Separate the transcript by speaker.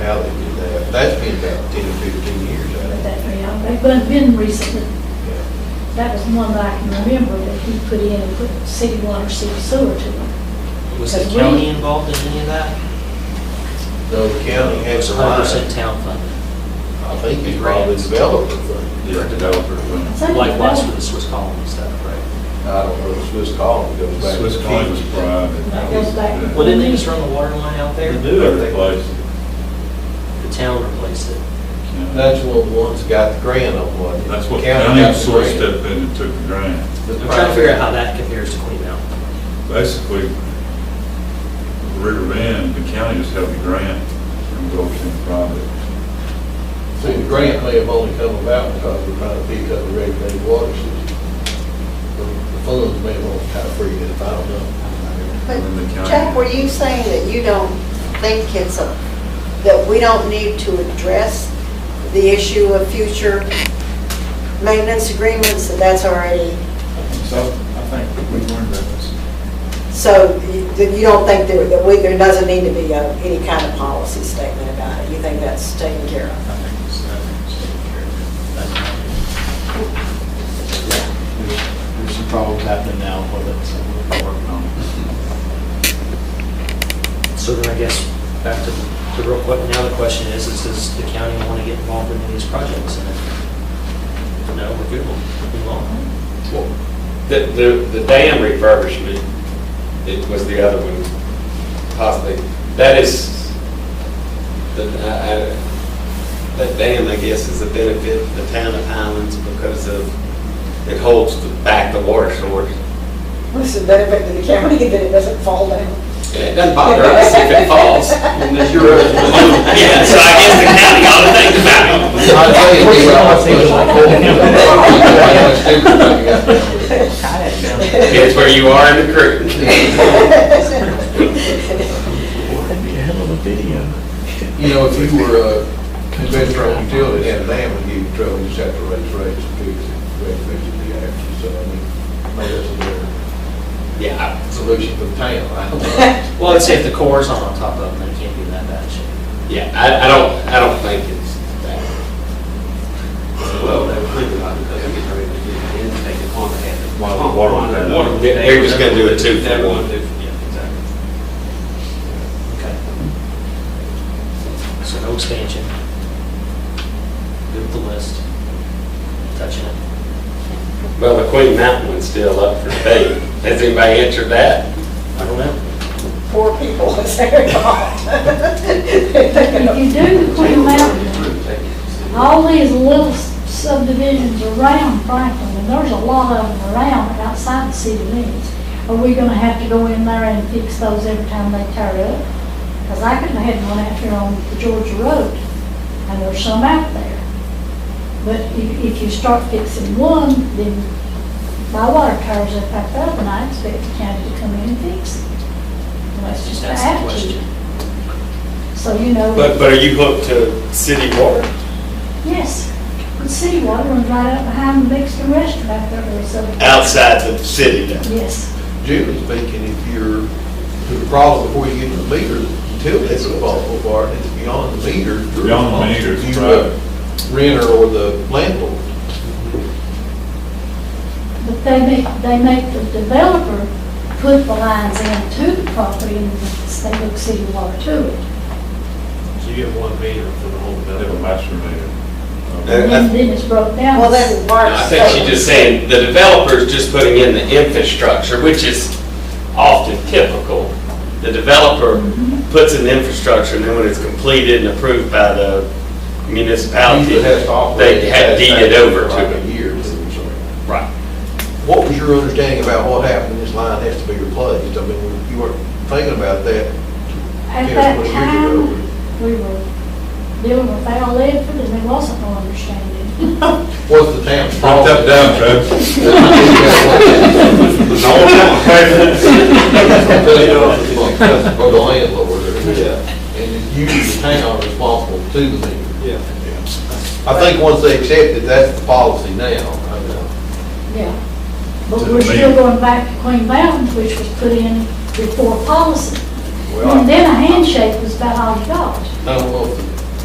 Speaker 1: how they do that. That's been about ten or fifteen years, I
Speaker 2: But
Speaker 1: think.
Speaker 2: that, yeah, they've been, been recently,
Speaker 1: Yeah.
Speaker 2: that was one that I can remember that he put in and put city water, city sewer to them.
Speaker 3: Was the
Speaker 2: Because we-
Speaker 3: county involved in any of that?
Speaker 1: No, the county has a
Speaker 3: Hundred
Speaker 1: line.
Speaker 3: percent town funded,
Speaker 1: I think it's probably
Speaker 3: Grants.
Speaker 1: developer thing.
Speaker 4: Yeah, developer.
Speaker 2: I
Speaker 4: when-
Speaker 2: think
Speaker 3: likewise
Speaker 2: that-
Speaker 3: with the Swiss colony stuff, right?
Speaker 1: I don't know, Swiss Colony goes back. to
Speaker 4: Swiss County was
Speaker 1: Kings.
Speaker 4: private.
Speaker 2: That goes back.
Speaker 3: Well, didn't they just run the water line out there?
Speaker 4: They do every place.
Speaker 3: The town replaced it.
Speaker 1: That's one of the ones that got the grant on one.
Speaker 4: That's what
Speaker 1: County
Speaker 4: county
Speaker 1: got the
Speaker 4: sort
Speaker 1: grant.
Speaker 4: of stepped in and took the grant.
Speaker 1: The
Speaker 3: I'm trying to figure out
Speaker 1: private-
Speaker 3: how that compares to Queen Mountain.
Speaker 4: Basically, River Bend, the county just held the grant and go to the private.
Speaker 1: See, the grant may have only come about because we're trying to pick up the regulated water system. The the funds may have only kind of freed it, I don't know.
Speaker 5: But
Speaker 4: When the county-
Speaker 5: Chuck, were you saying that you don't think it's a, that we don't need to address the issue of future maintenance agreements, that that's already,
Speaker 6: So I think we learned that this.
Speaker 5: so you that you don't think there- that we, there doesn't need to be a- any kind of policy statement about it? You think that's taken care of?
Speaker 6: I think it's, I think it's taken care of. That's not it. There's some problems happening now with it, so we're working on it.
Speaker 3: So then I guess, back to the real quick, now the question is, is does the county want to get involved in any of these projects? And if no, we're good, we'll move on.
Speaker 7: The, the the dam refurbishment, it was the other one possibly. That is, the,
Speaker 1: uh,
Speaker 7: I, I- that dam, I guess, is a benefit to the town of Highlands because of, it holds the- back the water source.
Speaker 5: What's the benefit to the county that it doesn't fall down?
Speaker 7: And It doesn't bother us if it falls. Unless you're over the moon. Yeah, so I guess the county ought to think about it.
Speaker 1: I tell you, we were all pushing for it.
Speaker 7: It's where you are in the creek.
Speaker 1: You know, if you were a conventional utility, and they would give you trouble, you just have to raise rates and fix it, raise rates and the action, so I mean, maybe that's a better
Speaker 7: Yeah,
Speaker 1: solution for the town. I don't know.
Speaker 3: Well, I'd say if the core's not on top of them, they can't do that bad shape.
Speaker 7: Yeah, I, I don't, I don't think it's that. Well, they could, because they get ready to do it, and take it on the head.
Speaker 4: While the water was down.
Speaker 7: Water, they- They're just gonna do a two for one.
Speaker 3: Okay. So no expansion. Good with the list. Touching it.
Speaker 7: Well, the Queen Mountain one's still up for debate. Has anybody answered that?
Speaker 3: I don't know.
Speaker 5: Poor people, is their fault. They're thinking of-
Speaker 2: If you do the Queen Mountain, all these little subdivisions around Franklin, and there's a lot of them around outside the city limits, are we gonna have to go in there and fix those every time they tear up? Because I couldn't have had one out here on the Georgia Road, and there's some out there. But if, if you start fixing one, then my water towers are back up, and I expect the county to come in and fix it. And that's just an
Speaker 3: That's the
Speaker 2: attitude.
Speaker 3: question.
Speaker 2: So, you know.
Speaker 7: But, but are you hooked to city water?
Speaker 2: Yes, the city water runs right up behind the Mexican restaurant back there, or something.
Speaker 7: Outside the city though?
Speaker 2: Yes,
Speaker 1: Generally speaking, if you're, the problem before you get to the meter, utilities are responsible for it, and it's beyond the meter. you're
Speaker 4: Beyond the meter, it's
Speaker 1: responsible. You, uh,
Speaker 4: private.
Speaker 1: Renter or the landlord.
Speaker 2: but they make, they make the developer put the lines in to the property and they hook city water to it.
Speaker 4: They have a master meter.
Speaker 7: Yeah.
Speaker 2: And then then it's broke down.
Speaker 5: Well, then Mark's.
Speaker 7: I think she's just saying, the developer's just putting in the infrastructure, which is often typical. The developer puts in the infrastructure, and then when it's completed and approved by the municipality,
Speaker 1: Usually has to operate
Speaker 7: they have
Speaker 1: as
Speaker 7: deeded
Speaker 1: that
Speaker 7: over
Speaker 1: for like a
Speaker 7: to it.
Speaker 1: year or something.
Speaker 7: Right.
Speaker 1: What was your understanding about what happened, this line has to be replaced? I mean, you weren't thinking about that
Speaker 2: At
Speaker 1: Yeah,
Speaker 2: that
Speaker 1: what we
Speaker 2: time,
Speaker 1: do.
Speaker 2: we were dealing with Al Ledford and there wasn't no understanding.
Speaker 1: Was the town's
Speaker 4: Drop
Speaker 1: fault?
Speaker 4: that down, Chuck.
Speaker 1: Really don't, it's like, that's for the landlord, or- and it's usually the town responsible to the meter.
Speaker 7: Yeah.
Speaker 1: I think once they accept it, that's the policy now. I know.
Speaker 2: Yeah. But
Speaker 4: To the
Speaker 2: we're still
Speaker 4: main.
Speaker 2: going back to Queen Mountain, which was put in before policy.
Speaker 1: Well,
Speaker 2: And
Speaker 1: I
Speaker 2: then a handshake was about all you got.
Speaker 1: I don't know if the